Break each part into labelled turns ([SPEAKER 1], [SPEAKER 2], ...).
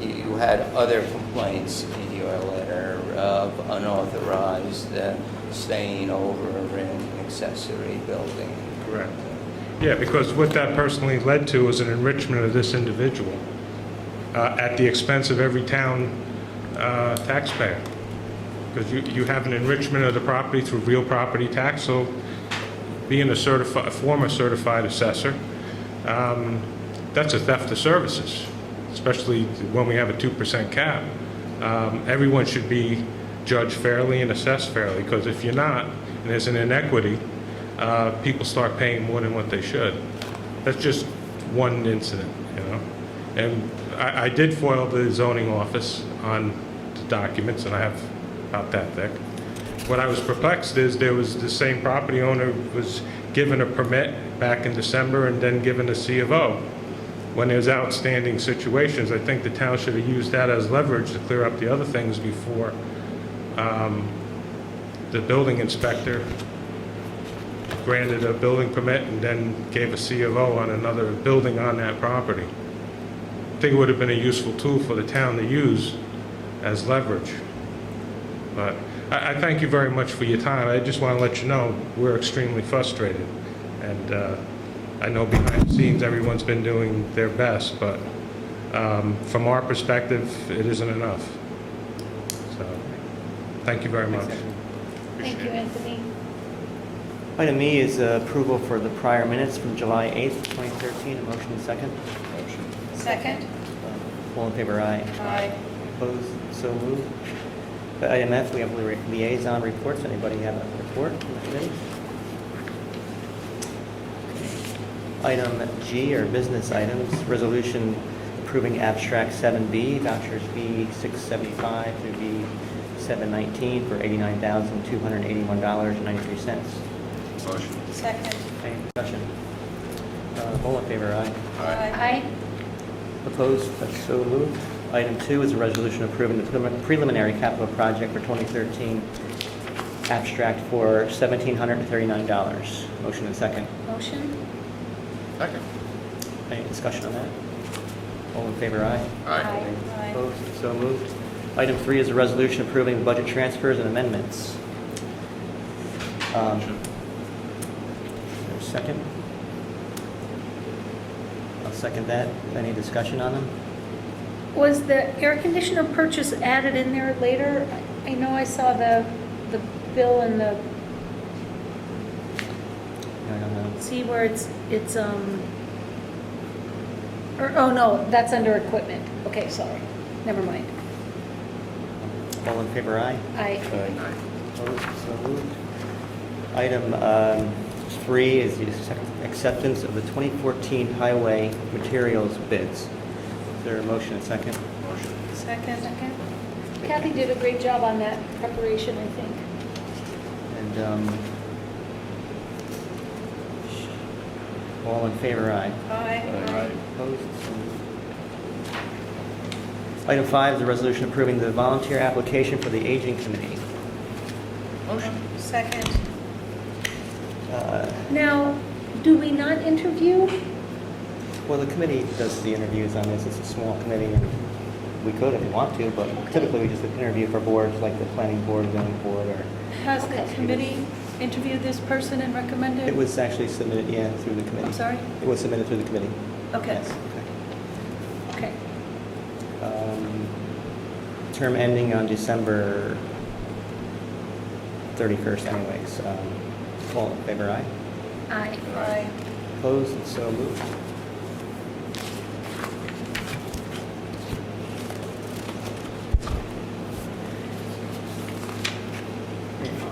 [SPEAKER 1] you had other complaints in your letter of unauthorized uh, staying over in accessory building.
[SPEAKER 2] Correct. Yeah, because what that personally led to was an enrichment of this individual uh, at the expense of every town uh, taxpayer. Because you, you have an enrichment of the property through real property tax, so being a certified, former certified assessor, um, that's a theft of services, especially when we have a 2% cap. Um, Everyone should be judged fairly and assessed fairly, because if you're not, and there's an inequity, uh, people start paying more than what they should. That's just one incident, you know? And I I did foil the zoning office on the documents, and I have about that thick. What I was perplexed is there was the same property owner was given a permit back in December and then given a C of O. When there's outstanding situations, I think the town should have used that as leverage to clear up the other things before um, the building inspector granted a building permit and then gave a C of O on another building on that property. I think it would have been a useful tool for the town to use as leverage. But I, I thank you very much for your time. I just want to let you know, we're extremely frustrated. And uh, I know behind the scenes, everyone's been doing their best, but um, from our perspective, it isn't enough. So, thank you very much.
[SPEAKER 3] Thank you, Anthony.
[SPEAKER 4] Item E is uh, approval for the prior minutes from July 8th, 2013. A motion and second. Uh,
[SPEAKER 3] Second?
[SPEAKER 4] All in favor, aye.
[SPEAKER 3] Aye.
[SPEAKER 4] Opposed, so moved. Uh, Item F, we have lia- liaison reports. Anybody have a report from the committee? Item G are business items. Resolution approving abstract 7B, vouchers B675 through B719 for $89,281.93.
[SPEAKER 5] Motion.
[SPEAKER 3] Second?
[SPEAKER 4] Any discussion? Uh, All in favor, aye.
[SPEAKER 3] Aye.
[SPEAKER 4] Opposed, That's so moved. Item two is a resolution approving the prelim- preliminary capital project for 2013, abstract for $1,739. Motion and second.
[SPEAKER 3] Motion?
[SPEAKER 5] Second.
[SPEAKER 4] Any discussion on that? All in favor, aye.
[SPEAKER 5] Aye.
[SPEAKER 3] Aye.
[SPEAKER 4] Opposed, so moved. Item three is a resolution approving budget transfers and amendments. Um,
[SPEAKER 5] Motion.
[SPEAKER 4] is there a Second? I'll second that. Any discussion on them?
[SPEAKER 3] Was the air conditioner purchase added in there later? I know I saw the, the bill and the,
[SPEAKER 4] I don't know.
[SPEAKER 3] see where it's, it's, um, or, oh, no, that's under equipment. Okay, sorry. Never mind.
[SPEAKER 4] All in favor, aye.
[SPEAKER 3] Aye.
[SPEAKER 5] Aye.
[SPEAKER 4] Opposed, so moved. Item um, three is the accept- acceptance of the 2014 highway materials bids. Is there a motion and second?
[SPEAKER 5] Motion.
[SPEAKER 3] Second? Second. Kathy did a great job on that preparation, I think.
[SPEAKER 4] And um, all in favor, aye.
[SPEAKER 3] Aye.
[SPEAKER 4] Opposed, so moved. Item five is a resolution approving the volunteer application for the aging committee.
[SPEAKER 3] Second.
[SPEAKER 4] Uh,
[SPEAKER 3] Now, do we not interview?
[SPEAKER 4] Well, the committee does the interviews on this, it's a small committee, and we could if we want to, but typically we just interview for boards, like the planning board, zoning board, or,
[SPEAKER 6] Has the committee interviewed this person and recommended?
[SPEAKER 4] it was actually submitted, yeah, through the committee.
[SPEAKER 6] Oh. I'm sorry?
[SPEAKER 4] It was submitted through the committee.
[SPEAKER 6] Okay.
[SPEAKER 4] Yes,
[SPEAKER 3] Okay.
[SPEAKER 4] okay. Um, Term ending on December 31st anyways. Um, All in favor, aye?
[SPEAKER 3] Aye.
[SPEAKER 5] Aye.
[SPEAKER 4] Opposed, and so moved.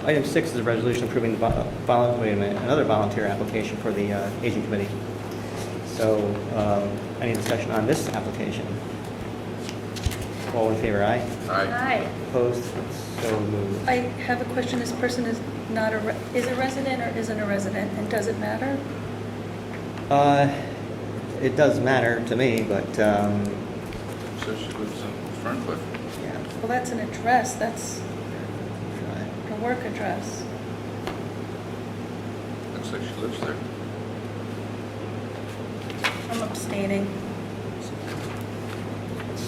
[SPEAKER 4] Item six is a resolution approving the vol- vol- wait a minute, another volunteer application for the uh, aging committee. So um, any discussion on this application? All in favor, aye?
[SPEAKER 5] Aye.
[SPEAKER 3] Aye.
[SPEAKER 4] Opposed, so moved.
[SPEAKER 6] I have a question. This person is not a, re- is a resident or isn't a resident, and does it matter?
[SPEAKER 4] Uh, It does matter to me, but, um,
[SPEAKER 5] So she lives in Ferncliff.
[SPEAKER 4] yeah,
[SPEAKER 6] Well, that's an address, that's
[SPEAKER 4] try.
[SPEAKER 6] a work address.
[SPEAKER 5] Looks like she lives there.
[SPEAKER 6] I'm abstaining.